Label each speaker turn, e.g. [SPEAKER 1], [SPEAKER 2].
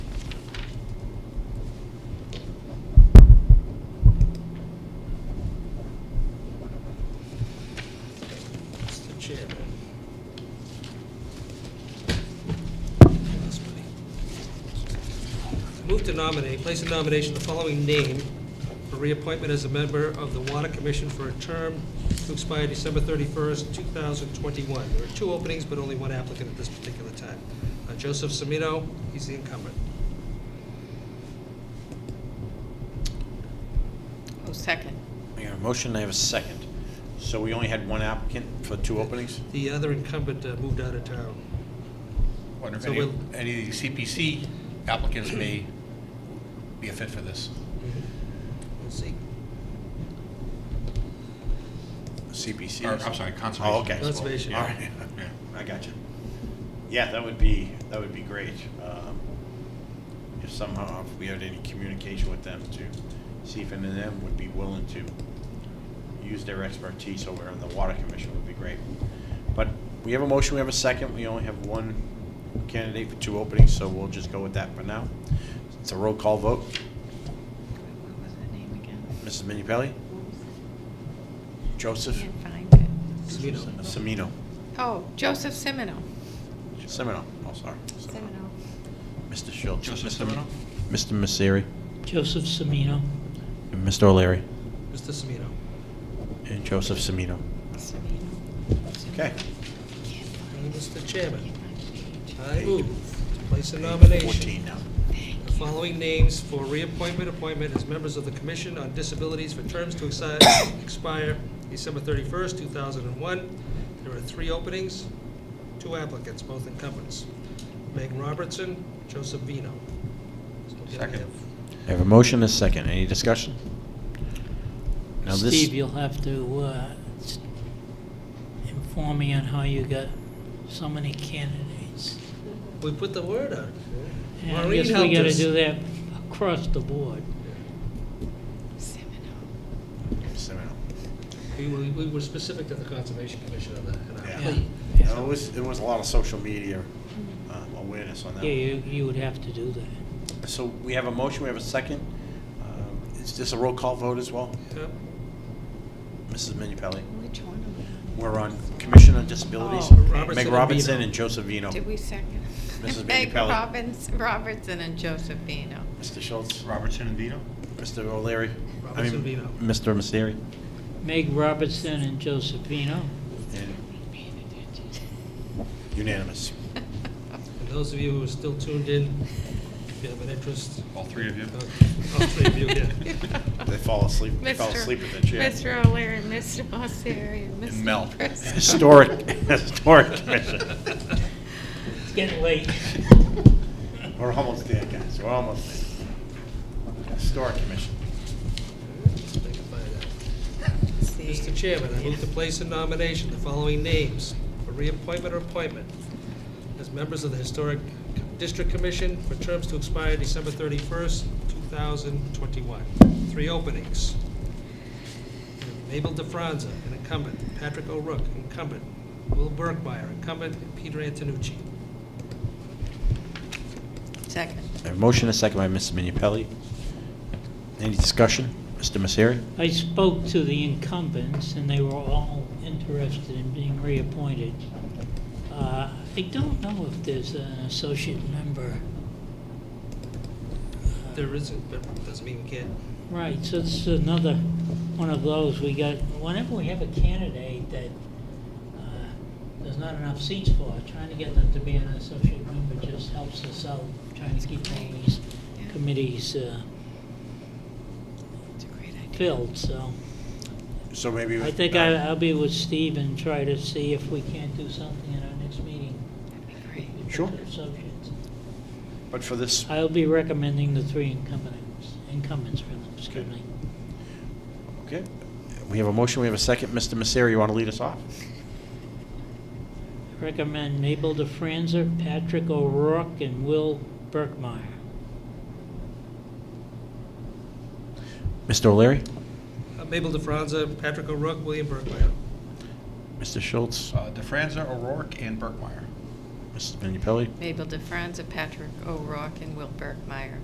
[SPEAKER 1] Move to nominate, place in nomination the following name for reappointment as a member of the Water Commission for a term to expire December 31st, 2021. There are two openings, but only one applicant at this particular time. Uh, Joseph Semino, he's the incumbent.
[SPEAKER 2] Oh, second.
[SPEAKER 3] I have a motion, I have a second. So we only had one applicant for two openings?
[SPEAKER 1] The other incumbent uh, moved out of town.
[SPEAKER 4] Wonder if
[SPEAKER 1] So
[SPEAKER 4] any,
[SPEAKER 1] we'll-
[SPEAKER 4] any of the CPC applicants may be a fit for this.
[SPEAKER 1] We'll see.
[SPEAKER 3] CPC?
[SPEAKER 4] Or,
[SPEAKER 3] or
[SPEAKER 4] I'm
[SPEAKER 3] something?
[SPEAKER 4] sorry, conservation.
[SPEAKER 3] Oh, okay.
[SPEAKER 1] Conservation.
[SPEAKER 3] All right,
[SPEAKER 4] Yeah.
[SPEAKER 3] I got you. Yeah, that would be, that would be great. um, If somehow, if we had any communication with them to see if any of them would be willing to use their expertise over in the Water Commission would be great. But we have a motion, we have a second, we only have one candidate for two openings, so we'll just go with that for now. It's a roll call vote.
[SPEAKER 2] What was that name again?
[SPEAKER 3] Mrs. Minipelli? Joseph
[SPEAKER 2] Can't find it.
[SPEAKER 1] Semino.
[SPEAKER 3] Semino.
[SPEAKER 2] Oh, Joseph Semino.
[SPEAKER 3] Semino, oh, sorry. Semino. Mr. Schultz.
[SPEAKER 4] Joseph
[SPEAKER 3] Mr.
[SPEAKER 4] Semino?
[SPEAKER 3] Mr. Messeri,
[SPEAKER 5] Joseph Semino.
[SPEAKER 3] and Mr. O'Leary,
[SPEAKER 1] Mr. Semino.
[SPEAKER 3] and Joseph Semino.
[SPEAKER 2] Semino.
[SPEAKER 3] Okay.
[SPEAKER 2] Can't find-
[SPEAKER 1] And Mr. Chairman,
[SPEAKER 2] can't find the page.
[SPEAKER 1] I move to place a nomination
[SPEAKER 3] Fourteen now.
[SPEAKER 1] The following names for reappointment, appointment as members of the Commission on Disabilities for terms to exi- expire December 31st, 2001. There are three openings, two applicants, both incumbents. Megan Robertson, Joseph Vino. So we
[SPEAKER 4] Second.
[SPEAKER 1] have-
[SPEAKER 3] I have a motion and a second. Any discussion? Now this-
[SPEAKER 5] Steve, you'll have to uh, s- inform me on how you got so many candidates.
[SPEAKER 1] We put the word out.
[SPEAKER 5] And I
[SPEAKER 1] Maureen
[SPEAKER 5] guess we
[SPEAKER 1] helped
[SPEAKER 5] gotta
[SPEAKER 1] us.
[SPEAKER 5] do that across the board.
[SPEAKER 2] Semino.
[SPEAKER 3] Semino.
[SPEAKER 1] We were- we were specific to the Conservation Commission on that. and our
[SPEAKER 3] Yeah.
[SPEAKER 5] Yeah,
[SPEAKER 1] plea.
[SPEAKER 5] yeah.
[SPEAKER 3] It was, it was a lot of social media um, awareness on that.
[SPEAKER 5] Yeah, you, you would have to do that.
[SPEAKER 3] So we have a motion, we have a second. Um, Is this a roll call vote as well?
[SPEAKER 1] Yeah.
[SPEAKER 3] Mrs. Minipelli?
[SPEAKER 2] Which one of them?
[SPEAKER 3] We're on Commission on Disabilities.
[SPEAKER 2] Oh,
[SPEAKER 1] Robertson
[SPEAKER 3] Meg
[SPEAKER 1] and
[SPEAKER 3] Robinson
[SPEAKER 1] Vino.
[SPEAKER 3] and Joseph Vino.
[SPEAKER 2] Did we second?
[SPEAKER 3] Mrs.
[SPEAKER 2] Meg
[SPEAKER 3] Minipelli.
[SPEAKER 2] Robbins, Robertson and Josephino.
[SPEAKER 3] Mr. Schultz,
[SPEAKER 4] Robertson and Vino?
[SPEAKER 3] Mr. O'Leary. I mean,
[SPEAKER 1] Robertson Vino.
[SPEAKER 3] Mr. Messeri.
[SPEAKER 5] Meg Robertson and Josephino.
[SPEAKER 3] And Unanimous.
[SPEAKER 1] And those of you who are still tuned in, if you have an interest,
[SPEAKER 4] All three of you?
[SPEAKER 1] uh, all three of you here.
[SPEAKER 3] They fall asleep, they fell
[SPEAKER 2] Mr.
[SPEAKER 3] asleep at the chair.
[SPEAKER 2] Mr. O'Leary, Mr. Osiri, and Mr.
[SPEAKER 4] Mel.
[SPEAKER 2] Preston.
[SPEAKER 3] Historic, Historic Commission.
[SPEAKER 5] It's getting late.
[SPEAKER 3] We're almost there, guys, we're almost there. Historic Commission.
[SPEAKER 1] They can find out.
[SPEAKER 2] See.
[SPEAKER 1] Mr. Chairman, I move to place in nomination the following names for reappointment or appointment as members of the Historic District Commission for terms to expire December 31st, 2021. Three openings. Mabel DeFranza, an incumbent, Patrick O'Rourke, incumbent, Will Burkmeyer, incumbent, and Peter Antonucci.
[SPEAKER 2] Second.
[SPEAKER 3] I have a motion, a second by Mrs. Minipelli. Any discussion? Mr. Messeri?
[SPEAKER 5] I spoke to the incumbents, and they were all interested in being reappointed. Uh, I don't know if there's an associate member. Uh,
[SPEAKER 1] There isn't, but doesn't mean we can't.
[SPEAKER 5] Right, so it's another one of those, we got, whenever we have a candidate that uh, there's not enough seats for, trying to get them to be an associate member just helps us out, trying to keep all these
[SPEAKER 2] Yeah.
[SPEAKER 5] committees uh,
[SPEAKER 2] It's a great idea.
[SPEAKER 5] filled, so.
[SPEAKER 3] So maybe. uh,
[SPEAKER 5] I think I- I'll be with Steve and try to see if we can't do something at our next meeting.
[SPEAKER 2] That'd be great.
[SPEAKER 5] with the
[SPEAKER 3] Sure.
[SPEAKER 5] associates.
[SPEAKER 3] But for this,
[SPEAKER 5] I'll be recommending the three incumbents, incumbents for them, excuse me.
[SPEAKER 3] okay, we have a motion, we have a second. Mr. Messeri, you want to lead us off?
[SPEAKER 5] Recommend Mabel DeFranza, Patrick O'Rourke, and Will Burkmeyer.
[SPEAKER 3] Mr. O'Leary?
[SPEAKER 1] Uh, Mabel DeFranza, Patrick O'Rourke, William Burkmeyer.
[SPEAKER 3] Mr. Schultz?
[SPEAKER 4] Uh, DeFranza, O'Rourke, and Burkmeyer.
[SPEAKER 3] Mrs. Minipelli?
[SPEAKER 2] Mabel DeFranza, Patrick O'Rourke, and Will Burkmeyer.